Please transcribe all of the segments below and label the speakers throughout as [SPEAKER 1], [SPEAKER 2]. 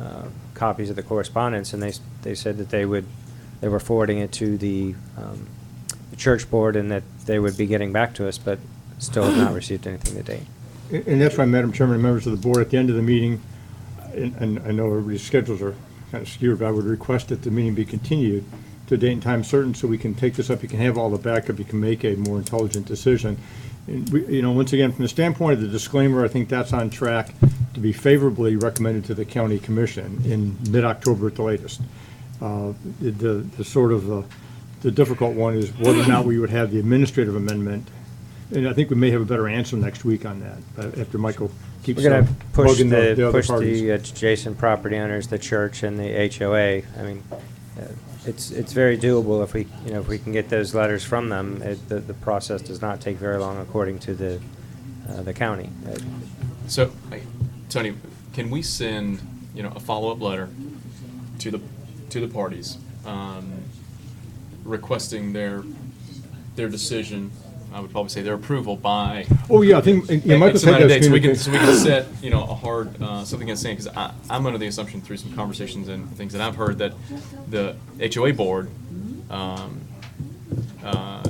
[SPEAKER 1] uh, copies of the correspondence, and they, s- they said that they would, they were forwarding it to the um, the church board and that they would be getting back to us, but still have not received anything to date.
[SPEAKER 2] And and that's why, Madam Chairman, and members of the board, at the end of the meeting, and, and I know everybody's schedules are kind of skewed, but I would request that the meeting be continued to a date and time certain, so we can take this up, you can have all the backup, you can make a more intelligent decision. And we, you know, once again, from the standpoint of the disclaimer, I think that's on track to be favorably recommended to the county commission in mid-October at the latest. Uh, The, the- the sort of, uh, the difficult one is whether or not we would have the administrative amendment. And I think we may have a better answer next week on that, uh, after Michael keeps
[SPEAKER 1] We're going to
[SPEAKER 2] uh,
[SPEAKER 1] push
[SPEAKER 2] bugging the the
[SPEAKER 1] the,
[SPEAKER 2] other
[SPEAKER 1] push
[SPEAKER 2] parties.
[SPEAKER 1] the adjacent property owners, the church and the HOA. I mean, uh, it's, it's very doable if we, you know, if we can get those letters from them. It- The, the process does not take very long according to the, uh, the county. Uh,
[SPEAKER 3] So, I- Tony, can we send, you know, a follow-up letter to the, to the parties, um, requesting their, their decision, I would probably say their approval by.
[SPEAKER 2] Oh, yeah, I think, and- yeah,
[SPEAKER 3] X
[SPEAKER 2] Michael's had
[SPEAKER 3] amount of
[SPEAKER 2] those
[SPEAKER 3] dates. We can,
[SPEAKER 2] communications.
[SPEAKER 3] so we can set, you know, a hard, uh, something that's saying, because I, I'm under the assumption through some conversations and things that I've heard that the HOA board, um, uh,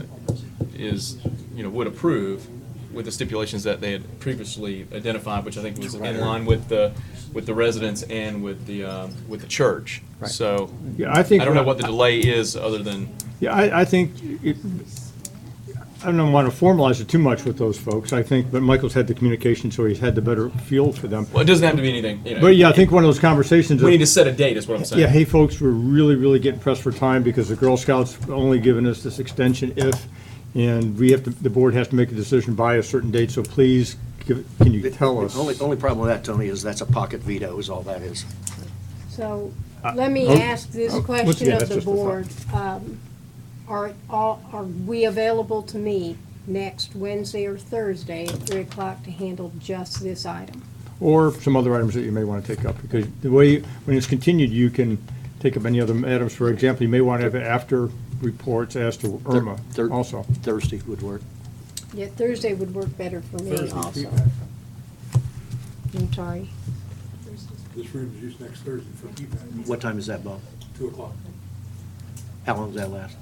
[SPEAKER 3] is, you know, would approve with the stipulations that they had previously identified, which I think was in line with the, with the residents and with the, um, with the church.
[SPEAKER 1] Right.
[SPEAKER 3] So,
[SPEAKER 2] Yeah, I
[SPEAKER 3] I
[SPEAKER 2] think.
[SPEAKER 3] don't know what the delay is, other than,
[SPEAKER 2] Yeah, I, I think, it- I don't want to formalize it too much with those folks, I think, but Michael's had the communication, so he's had the better feel for them.
[SPEAKER 3] well, it doesn't have to be anything, you know.
[SPEAKER 2] But yeah, I think one of those conversations.
[SPEAKER 3] We
[SPEAKER 2] of-
[SPEAKER 3] need to set a date, is what I'm saying.
[SPEAKER 2] Yeah, hey, folks, we're really, really getting pressed for time because the Girl Scouts are only giving us this extension if, and we have to, the board has to make a decision by a certain date, so please, give- can you tell us?
[SPEAKER 4] The Only, only problem with that, Tony, is that's a pocket veto is all that is.
[SPEAKER 5] So, let me
[SPEAKER 2] oh,
[SPEAKER 5] ask this
[SPEAKER 2] oh, once
[SPEAKER 5] question
[SPEAKER 2] again,
[SPEAKER 5] of
[SPEAKER 2] that's
[SPEAKER 5] the
[SPEAKER 2] just a thought.
[SPEAKER 5] board. Um, Are, all- are we available to meet next Wednesday or Thursday at three o'clock to handle just this item?
[SPEAKER 2] or some other items that you may want to take up, because the way, when it's continued, you can take up any other items. For example, you may want to have after reports as to Irma
[SPEAKER 4] Thir-
[SPEAKER 2] also.
[SPEAKER 4] Thursday would work.
[SPEAKER 5] Yeah, Thursday would work better for me also. I'm sorry.
[SPEAKER 6] This room is used next Thursday for PPAC,
[SPEAKER 4] What time is that, Bob?
[SPEAKER 6] two o'clock,
[SPEAKER 4] How long does that last?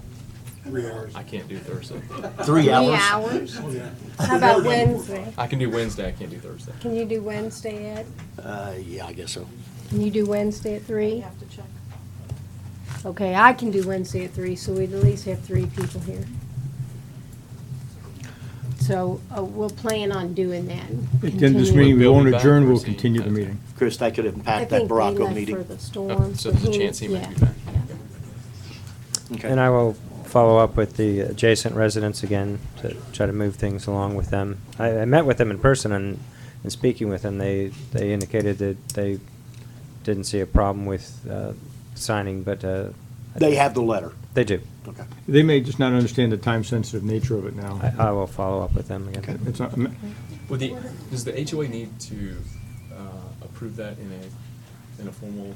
[SPEAKER 6] three hours.
[SPEAKER 3] I can't do Thursday.
[SPEAKER 4] Three
[SPEAKER 5] Three
[SPEAKER 4] hours?
[SPEAKER 5] hours?
[SPEAKER 6] Oh, yeah.
[SPEAKER 5] How about Wednesday?
[SPEAKER 3] I can do Wednesday, I can't do Thursday.
[SPEAKER 5] Can you do Wednesday at,
[SPEAKER 4] Uh, yeah, I guess so.
[SPEAKER 5] can you do Wednesday at three?
[SPEAKER 7] have to check.
[SPEAKER 5] Okay, I can do Wednesday at three, so we'd at least have three people here. So uh, we'll plan on doing that.
[SPEAKER 2] At the end of this
[SPEAKER 5] Continue.
[SPEAKER 2] meeting, we
[SPEAKER 3] We'll
[SPEAKER 2] won't
[SPEAKER 3] be back
[SPEAKER 2] adjourn, we'll
[SPEAKER 3] Thursday.
[SPEAKER 2] continue the meeting.
[SPEAKER 4] Chris, that could
[SPEAKER 5] I
[SPEAKER 4] impact that
[SPEAKER 5] think they
[SPEAKER 4] Baraco
[SPEAKER 5] left For
[SPEAKER 4] meeting.
[SPEAKER 5] the storm.
[SPEAKER 3] so there's a
[SPEAKER 5] but
[SPEAKER 3] chance he might be
[SPEAKER 5] yeah,
[SPEAKER 3] back.
[SPEAKER 5] yeah.
[SPEAKER 4] Okay.
[SPEAKER 1] And I will follow up with the adjacent residents again to try to move things along with them. I, I met with them in person and, and speaking with them, they, they indicated that they didn't see a problem with uh, signing, but. uh, I
[SPEAKER 4] They
[SPEAKER 1] think-
[SPEAKER 4] have the letter.
[SPEAKER 1] They do.
[SPEAKER 4] Okay.
[SPEAKER 2] They may just not understand the time-sensitive nature of it
[SPEAKER 1] I,
[SPEAKER 2] now.
[SPEAKER 1] I will follow up with them again.
[SPEAKER 2] It's uh, not-
[SPEAKER 3] Would the, does the HOA need to uh, approve that in a, in a formal?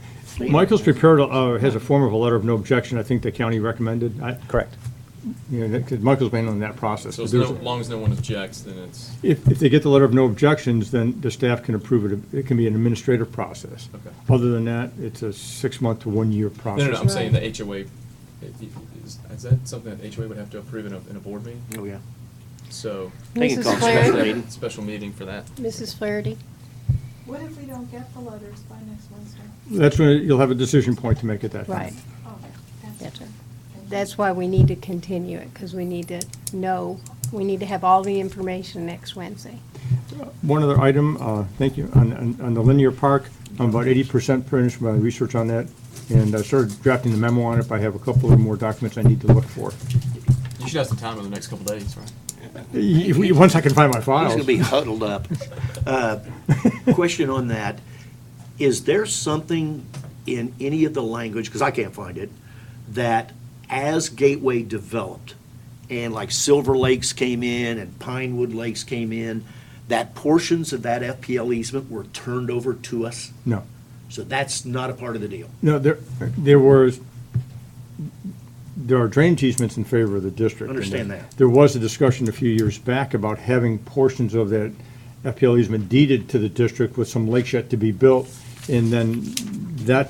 [SPEAKER 2] Michael's prepared, uh, has a form of a letter of no objection, I think the county recommended. I-
[SPEAKER 1] Correct.
[SPEAKER 2] You know, that- 'cause Michael's been on that process.
[SPEAKER 3] So
[SPEAKER 2] but
[SPEAKER 3] as no-
[SPEAKER 2] there's-
[SPEAKER 3] as long as no one objects, then it's,
[SPEAKER 2] If, if they get the letter of no objections, then the staff can approve it. It can be an administrative process.
[SPEAKER 3] Okay.
[SPEAKER 2] Other than that, it's a six-month to one-year
[SPEAKER 3] no,
[SPEAKER 2] process.
[SPEAKER 3] no, no, I'm saying the HOA, is, is that something that HOA would have to approve in a, in a board meeting?
[SPEAKER 4] Oh, yeah.
[SPEAKER 3] So.
[SPEAKER 4] They can
[SPEAKER 5] Mrs.
[SPEAKER 4] call a
[SPEAKER 5] Clarence?
[SPEAKER 4] special meeting.
[SPEAKER 3] Special meeting for that.
[SPEAKER 5] Mrs. Flaherty?
[SPEAKER 7] What if we don't get the letters by next Wednesday?
[SPEAKER 2] That's when you'll have a decision point to make at that time.
[SPEAKER 5] Right,
[SPEAKER 7] Oh,
[SPEAKER 5] that's right. That's why we need to continue it, because we need to know, we need to have all the information next Wednesday.
[SPEAKER 2] One other item, uh, thank you, on, on- on the linear park, I'm about eighty percent finished my research on that, and I started drafting the memo on it, but I have a couple of more documents I need to look for.
[SPEAKER 3] You should have some time in the next couple days, right?
[SPEAKER 2] If we- Once I can find my
[SPEAKER 4] He's
[SPEAKER 2] files.
[SPEAKER 4] gonna be huddled up. Uh, Question on that, is there something in any of the language, because I can't find it, that as Gateway developed, and like Silver Lakes came in and Pinewood Lakes came in, that portions of that FPL easement were turned over to us?
[SPEAKER 2] No,
[SPEAKER 4] So that's not a part of the deal.
[SPEAKER 2] no, there, there was, there are drainage easements in favor of the district. and
[SPEAKER 4] Understand that.
[SPEAKER 2] There was a discussion a few years back about having portions of that FPL easement deeded to the district with some lakes yet to be built, and then that